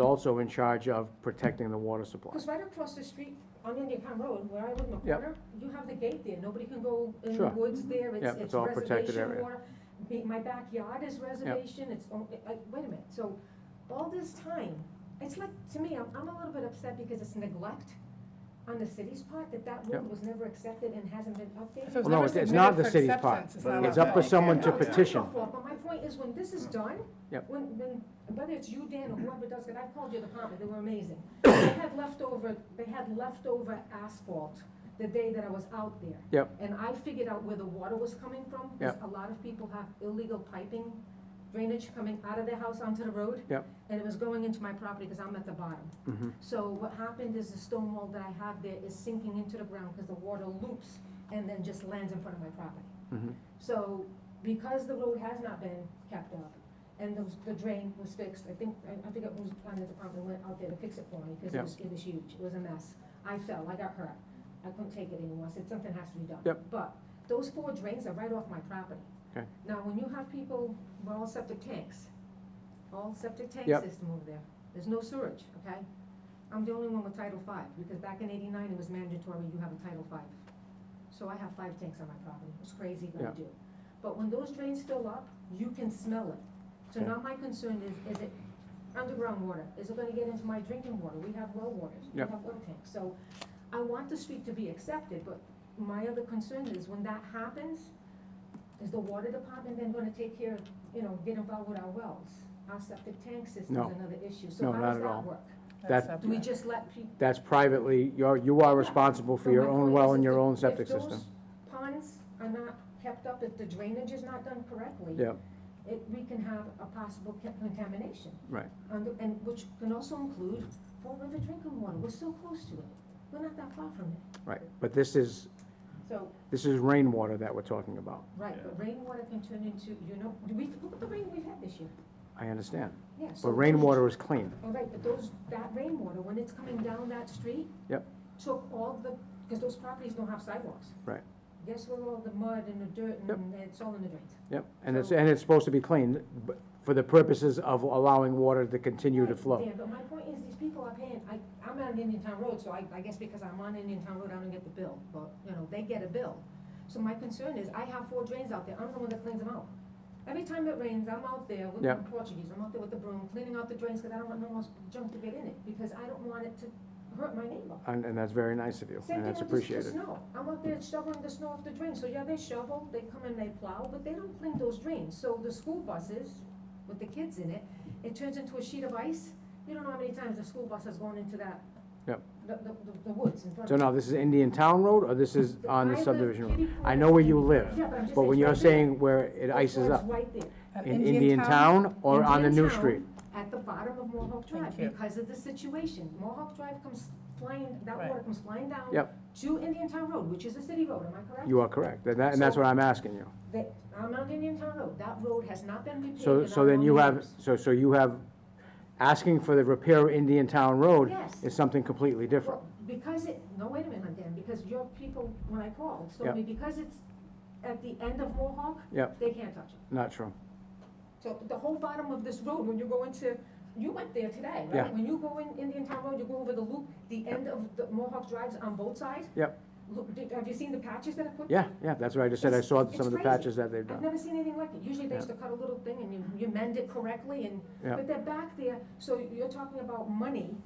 also in charge of protecting the water supply. Because right across the street on Indian Town Road, where I live in the Yep. corner, you have the gate there, nobody can go in the Sure. woods Yep, there, it's, it's it's all protected reservation area. water. Me- My backyard is reservation, it's, all- I- I- wait a minute, so all this time, it's like, to me, I'm, I'm a little bit upset because it's neglect on the city's part, that that Yep. road was never accepted and hasn't been updated. If it Well, was no, never it's- it's submitted not for the city's part. acceptance, it's not It's our up to fault. someone to No, it's not your petition. fault, But my point is, when this is done. Yep. When, when, whether it's you, Dan, or whoever does it, I've called your department, they were amazing. They had leftover, they had leftover asphalt the day that I was out there. Yep. And I figured out where the water was coming from, because a lot of people have illegal piping drainage coming out of their house onto the road. Yep. And it was going into my property, because I'm at the bottom. Mhm. So what happened is the stone wall that I have there is sinking into the ground because the water loops and then just lands in front of my property. Mhm. So because the road has not been kept up and the, the drain was fixed, I think, I I think it was on the department went out there to fix it for me because Yeah. it was, it was huge, it was a mess. I fell, I got hurt, I couldn't take it anymore, I said, something has to be done. Yep. But those four drains are right off my property. Okay. Now, when you have people, we're all septic tanks, all septic tank Yep. system over there, there's no sewage, okay? I'm the only one with Title Five because back in eighty-nine, it was mandatory, you have a Title Five. So I have five tanks on my property, it's crazy what I Yeah. do. But when those drains fill up, you can smell it. So Okay. now my concern is, is it underground water? Is it gonna get into my drinking water? We have well waters, we Yeah. have well tanks. So I want the street to be accepted, but my other concern is when that happens, is the water department then gonna take care, of you know, get involved with our wells? Our septic tank system's No. another issue, No, so how not does at all. that work? That's- That's Do we up to- just let people? That's privately, you're, you are responsible for your own well and your own septic system. Ponds are not kept up, if the drainage is not done correctly. Yep. It, we can have a possible ca- contamination. Right. And, the- and which can also include Fall River drinking water, we're so close to it, we're not that far from it. Right, but this is, So, this is rainwater that we're talking about. right, but rainwater can turn into, you know, do we, look at the rain we've had this year, I understand. yeah. But so- rainwater is clean. All right, but those, that rainwater, when it's coming down that street. Yep. Took all the, because those properties don't have sidewalks. Right. Guess where all the mud and the dirt Yep. and it's all in the drains. Yep, and it's, and it's supposed to be clean but for the purposes of allowing water to continue to Right, flow. Dan, but my point is, these people are paying, I, I'm on Indian Town Road, so I, I guess because I'm on Indian Town Road, I don't get the bill, but, you know, they get a bill. So my concern is, I have four drains out there, I'm the one that cleans them out. Every time it rains, I'm out there with Yeah. I'm Portuguese, I'm out there with the broom, cleaning out the drains, because I don't want no more junk to get in it, because I don't want it to hurt my neighbor. And, and that's very nice of you, Same and thing that's with the- the appreciated. snow. I'm out there shoveling the snow off the drain, so yeah, they shovel, they come and they plow, but they don't clean those drains. So the school buses with the kids in it, it turns into a sheet of ice. You don't know how many times the school bus has gone into that. Yep. The, the, the- the woods in front So of. now, this is Indian Town Road, or this is on I the live subdivision road? kitty I corner know where to you Indian- live, Yeah, but I'm just but when it's you're right there. saying where it That's ices why up, it's right there. At in Indian Town or on the Indian new Town street? At the bottom of Mohawk Drive, Thank you. because of the situation. Mohawk Drive comes flying, that Right. water comes flying down. Yep. To Indian Town Road, which is a city road, am I correct? You are correct, and that, and that's what I'm asking you. that, I'm on Indian Town Road, that road has not been repaved. So, in so our then you long have, years. so, so you have, asking for the repair of Indian Town Road Yes. is something completely different. Well, Because it, no, wait a minute, Dan, because your people, when I called, Yeah. told me, because it's at the end of Mohawk, Yep, they can't touch it. not true. So the whole bottom of this road, when you go into, you went there today, right? Yeah. When you go in Indian Town Road, you go over the loop, the end of the Mohawk Drives on both sides. Yep. Look, did- have you seen the patches that I put? Yeah, yeah, that's what I just said, I It's- saw it's some of the crazy. patches that they've I've done. never seen anything like it. Usually they Yeah. used to cut a little thing and you, you mend it correctly and, Yeah. but they're back there. So you're talking about money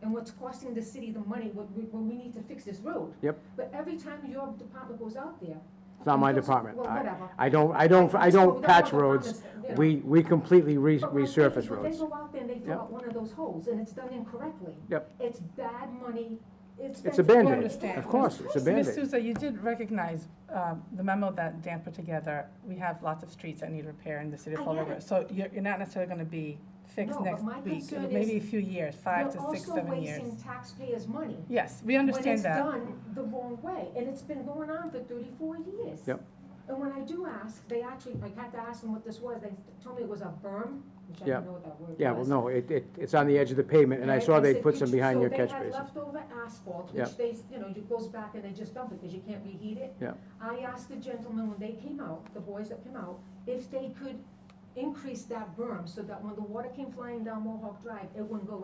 and what's costing the city the money when we, when we need to fix this road. Yep. But every time your department goes out there. It's not my and goes- department. Well, I, whatever. I don't, I don't, I So we don't patch want roads. departments, you know. We, we completely re- But my thing is resurface when roads. They go out there and they fill Yep. out one of those holes and it's done incorrectly. Yep. It's bad money. It's. It's a expensive. Band-Aid. understand. Of course, it's a Ms. Band-Aid. Souza, you did recognize um, the memo that Dan put together. We have lots of streets that need repair in the city of I Fall get River. it. So you're you're not necessarily going to be fixed No, but next my week, concern is maybe a few years, five You're to six, also seven years. wasting taxpayers' money. Yes, we understand that. When it's done the wrong way, and it's been going on for thirty-four years. Yep. And when I do ask, they actually, I had to ask them what this was, they told me it was a berm, which Yep. I didn't know what that word was. Yeah, well, no, it, it, it's on the edge of the pavement, and I saw they said, put "Did some you-" behind so your catch they had basin. leftover asphalt, Yep. which they, s- you know, it goes back and they just dump it, because you can't reheat it. Yep. I asked the gentlemen when they came out, the boys that came out, if they could increase that berm, so that when the water came flying down Mohawk Drive, it wouldn't go